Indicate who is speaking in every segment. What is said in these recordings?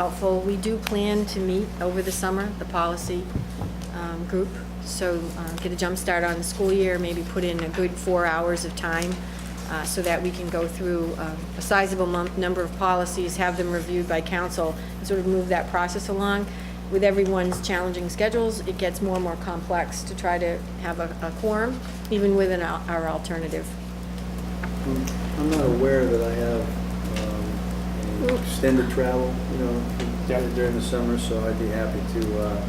Speaker 1: helpful. We do plan to meet over the summer, the policy um, group, so uh, get a jump start on the school year, maybe put in a good four hours of time uh, so that we can go through uh, a sizable mon- number of policies, have them reviewed by council, and sort of move that process along. With everyone's challenging schedules, it gets more and more complex to try to have a a quorum, even within our our alternative.
Speaker 2: I'm not aware that I have um, any extended travel, you
Speaker 3: Yeah.
Speaker 2: know, during the summer, so I'd be happy to, uh,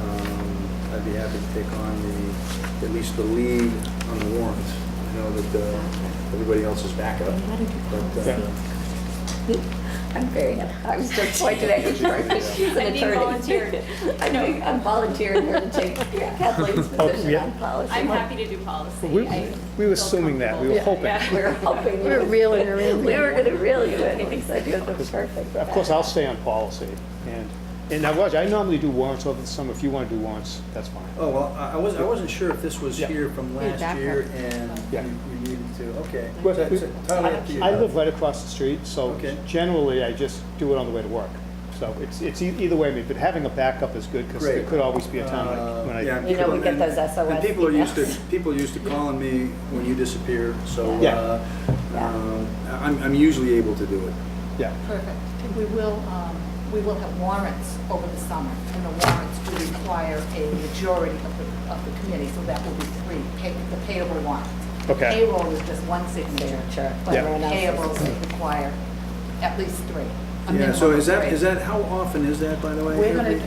Speaker 2: um, I'd be happy to take on the, at least the lead on the warrants. I know that uh, everybody else is backup. but, uh,
Speaker 4: I'm very happy. I was just pointing at you, George, because she's an
Speaker 5: I'm
Speaker 4: attorney.
Speaker 5: being volunteered.
Speaker 4: I know, I'm volunteering her to take Kathleen's
Speaker 3: Oh,
Speaker 4: position
Speaker 3: yeah.
Speaker 4: on policy.
Speaker 5: I'm happy to do policy.
Speaker 3: We-
Speaker 5: I
Speaker 3: we
Speaker 5: feel
Speaker 3: were assuming that. We
Speaker 5: comfortable.
Speaker 3: were hoping.
Speaker 5: Yeah.
Speaker 4: We're helping you.
Speaker 1: We're reeling her in.
Speaker 4: We were gonna reel you in, we said you're the perfect.
Speaker 3: Of course, I'll stay on policy. And, and now, Roger, I normally do warrants over the summer. If you want to do warrants, that's fine.
Speaker 2: Oh, well, I I wasn't, I wasn't sure if this was
Speaker 3: Yeah.
Speaker 2: here from
Speaker 1: Need
Speaker 2: last
Speaker 1: backup.
Speaker 2: year and
Speaker 3: Yeah.
Speaker 2: you you needed to, okay.
Speaker 3: But
Speaker 2: So it's
Speaker 3: we-
Speaker 2: Totally up to you.
Speaker 3: I I live right across the street, so
Speaker 2: Okay.
Speaker 3: generally, I just do it on the way to work. So it's, it's e- either way, but having a backup is good because there
Speaker 2: Great.
Speaker 3: could always be a time
Speaker 2: Uh,
Speaker 3: when- when
Speaker 2: yeah,
Speaker 3: I,
Speaker 4: You know, we get
Speaker 2: and-
Speaker 4: those SOS
Speaker 2: And people are used to,
Speaker 4: emails.
Speaker 2: people are used to calling me when you disappear, so,
Speaker 3: Yeah.
Speaker 2: uh,
Speaker 4: Yeah.
Speaker 2: um, I'm, I'm usually able to do it.
Speaker 3: yeah.
Speaker 6: Perfect. And we will, um, we will have warrants over the summer, and the warrants do require a majority of the, of the committee, so that will be three, pay- the payable warrants.
Speaker 3: Okay.
Speaker 6: Payroll is just one signature,
Speaker 4: Signature,
Speaker 6: but
Speaker 3: Yeah.
Speaker 6: payables require at least three. a
Speaker 2: Yeah, so
Speaker 6: minimum
Speaker 2: is
Speaker 6: of
Speaker 2: that,
Speaker 6: three.
Speaker 2: is that, how often is that, by the way?
Speaker 6: We're gonna,
Speaker 2: Every-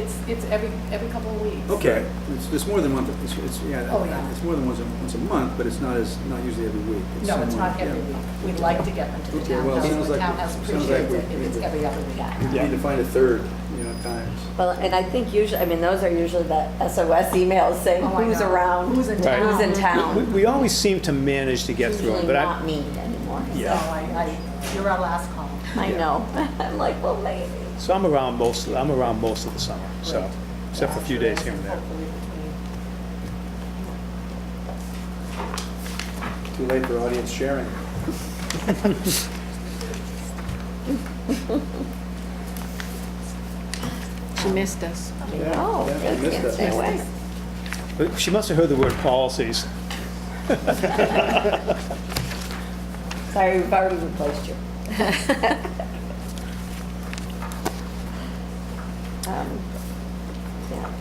Speaker 6: it's, it's every, every couple of weeks.
Speaker 2: Okay, it's, it's more than once, it's, it's,
Speaker 6: Oh, yeah.
Speaker 2: yeah, it's more than once, a- once a month, but it's not as, not usually every week.
Speaker 6: No, it's
Speaker 2: somewhere,
Speaker 6: not every
Speaker 2: yeah.
Speaker 6: week. We'd like to get them to the
Speaker 2: Okay, well, it
Speaker 6: townhouse,
Speaker 2: sounds
Speaker 6: the
Speaker 2: like-
Speaker 6: townhouse
Speaker 2: sounds like
Speaker 6: appreciates
Speaker 2: we-
Speaker 6: it if it's every other week.
Speaker 2: We
Speaker 3: Yeah.
Speaker 2: Need to find a third, you know, times.
Speaker 4: Well, and I think usually, I mean, those are usually the SOS emails saying
Speaker 6: Oh, I
Speaker 4: who's
Speaker 6: know.
Speaker 4: around.
Speaker 6: Who's in
Speaker 3: Right.
Speaker 4: Who's in
Speaker 6: town.
Speaker 3: We,
Speaker 4: town.
Speaker 3: we always seem to manage to get through
Speaker 4: Usually
Speaker 3: them, but
Speaker 4: not
Speaker 3: I,
Speaker 4: me anymore.
Speaker 6: So
Speaker 3: yeah.
Speaker 6: I, I, you're our last call.
Speaker 4: I know. I'm like, well, maybe.
Speaker 3: So I'm around most, I'm around most of the summer, so, except for a few days here and there.
Speaker 6: Hopefully between
Speaker 2: Too late for audience sharing.
Speaker 1: She missed us.
Speaker 4: I know.
Speaker 2: yeah, I
Speaker 4: Oh, I
Speaker 2: missed
Speaker 4: can't
Speaker 2: that.
Speaker 4: stay away.
Speaker 3: But she must have heard the word policies.
Speaker 4: Sorry, we've already replaced you. Um, yeah.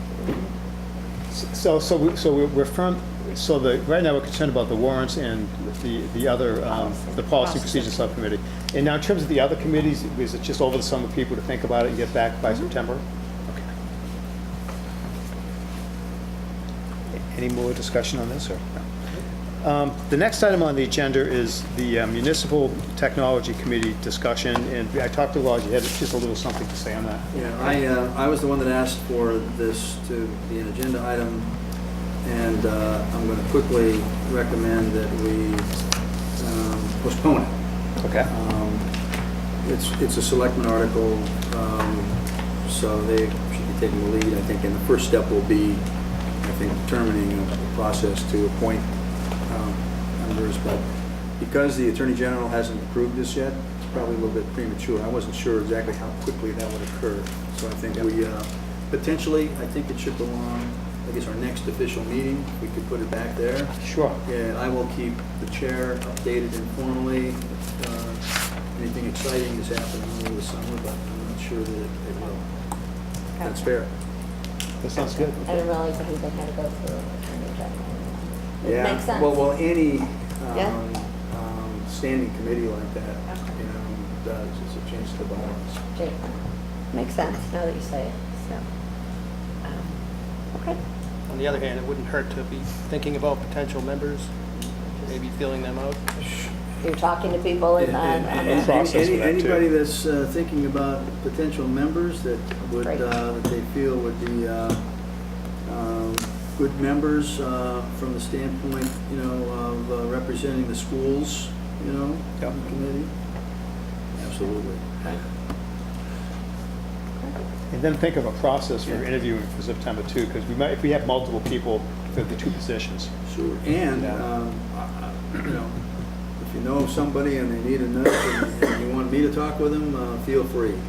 Speaker 3: So, so, we- so we're- we're firm, so the, right now, we're concerned about the warrants and the, the other, um, the policy procedure subcommittee. And now, in terms of the other committees, is it just over the summer people to think about it and get back by September? Okay. Any more discussion on this, or? no? Um, The next item on the agenda is the uh, municipal technology committee discussion, and I talked to Roger, he had just a little something to say on that.
Speaker 2: Yeah, I, uh, I was the one that asked for this to be an agenda item, and uh, I'm going to quickly recommend that we um, postpone it.
Speaker 3: Okay.
Speaker 2: Um, It's, it's a selectman article, um, so they should be taking the lead, I think, and the first step will be, I think, determining a process to appoint um, members, but because the Attorney General hasn't approved this yet, it's probably a little bit premature. I wasn't sure exactly how quickly that would occur, so I think we, uh, potentially, I think it should belong, I guess, our next official meeting, we could put it back there.
Speaker 3: Sure.
Speaker 2: Yeah, I will keep the chair updated informally. if, uh, Anything exciting is happening over the summer, but I'm not sure that it it will. That's fair.
Speaker 3: That sounds good.
Speaker 4: I didn't realize that we had to go through attorney general. It
Speaker 2: Yeah.
Speaker 4: makes sense.
Speaker 2: Well, well, any
Speaker 4: Yeah.
Speaker 2: um, um, standing committee like that, you know, does, it's a change to the balance.
Speaker 4: Jake, Makes sense now that you say it, so. um, Okay.
Speaker 7: On the other hand, it wouldn't hurt to be thinking about potential members, maybe feeling them out.
Speaker 4: You're talking to people and, and-
Speaker 2: And-
Speaker 3: and-
Speaker 4: and-
Speaker 3: Process with
Speaker 2: any-
Speaker 3: that, too.
Speaker 2: Anybody that's uh, thinking about potential members that would,
Speaker 4: Right.
Speaker 2: uh, that they feel would be uh, um, good members uh, from the standpoint, you know, of uh, representing the schools, you know,
Speaker 3: Yep.
Speaker 2: committee? Absolutely.
Speaker 3: And then think of a process for interviewing for September too, because we might, if we have multiple people for the two positions.
Speaker 2: Sure. And,
Speaker 3: Yeah.
Speaker 2: um, I- I- you know, if you know of somebody and they need a nurse and and you want me to talk with them, uh, feel free.